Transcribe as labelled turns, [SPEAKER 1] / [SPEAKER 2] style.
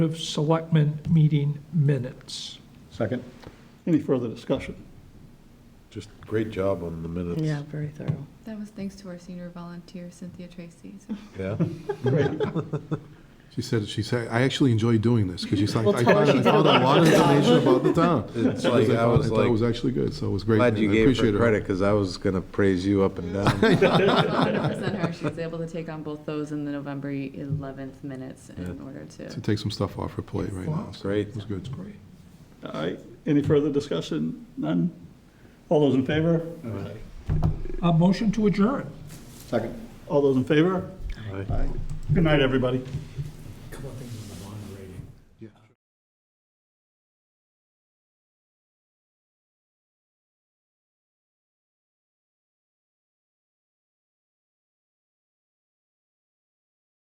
[SPEAKER 1] of Selectmen meeting minutes.
[SPEAKER 2] Second?
[SPEAKER 3] Any further discussion?
[SPEAKER 4] Just great job on the minutes.
[SPEAKER 5] Yeah, very thorough.
[SPEAKER 6] That was thanks to our senior volunteer, Cynthia Tracy. So
[SPEAKER 4] Yeah?
[SPEAKER 7] She said, she said, I actually enjoy doing this, because she's like,
[SPEAKER 5] Well,
[SPEAKER 7] I
[SPEAKER 5] tell her
[SPEAKER 7] found I
[SPEAKER 5] she's
[SPEAKER 7] found
[SPEAKER 5] done
[SPEAKER 7] a
[SPEAKER 5] a
[SPEAKER 7] lot of
[SPEAKER 5] good job."
[SPEAKER 7] information about the town.
[SPEAKER 4] It's
[SPEAKER 7] Because
[SPEAKER 4] like,
[SPEAKER 7] I
[SPEAKER 4] I
[SPEAKER 7] thought- I
[SPEAKER 4] was
[SPEAKER 7] thought it was
[SPEAKER 4] like,
[SPEAKER 7] actually good, so it was great.
[SPEAKER 4] glad
[SPEAKER 7] and
[SPEAKER 4] you
[SPEAKER 7] I
[SPEAKER 4] gave her
[SPEAKER 7] appreciate
[SPEAKER 4] credit, because I was going to praise you up and down.
[SPEAKER 5] To
[SPEAKER 6] 100% her. She was able to take on both those in the November 11th minutes in order to.
[SPEAKER 7] take some stuff off her plate right now. so
[SPEAKER 4] Great.
[SPEAKER 7] It was good.
[SPEAKER 1] Great.
[SPEAKER 3] All right, any further discussion? None? All those in favor?
[SPEAKER 1] A motion to adjourn.
[SPEAKER 2] Second?
[SPEAKER 3] All those in favor? Aye. Good night, everybody.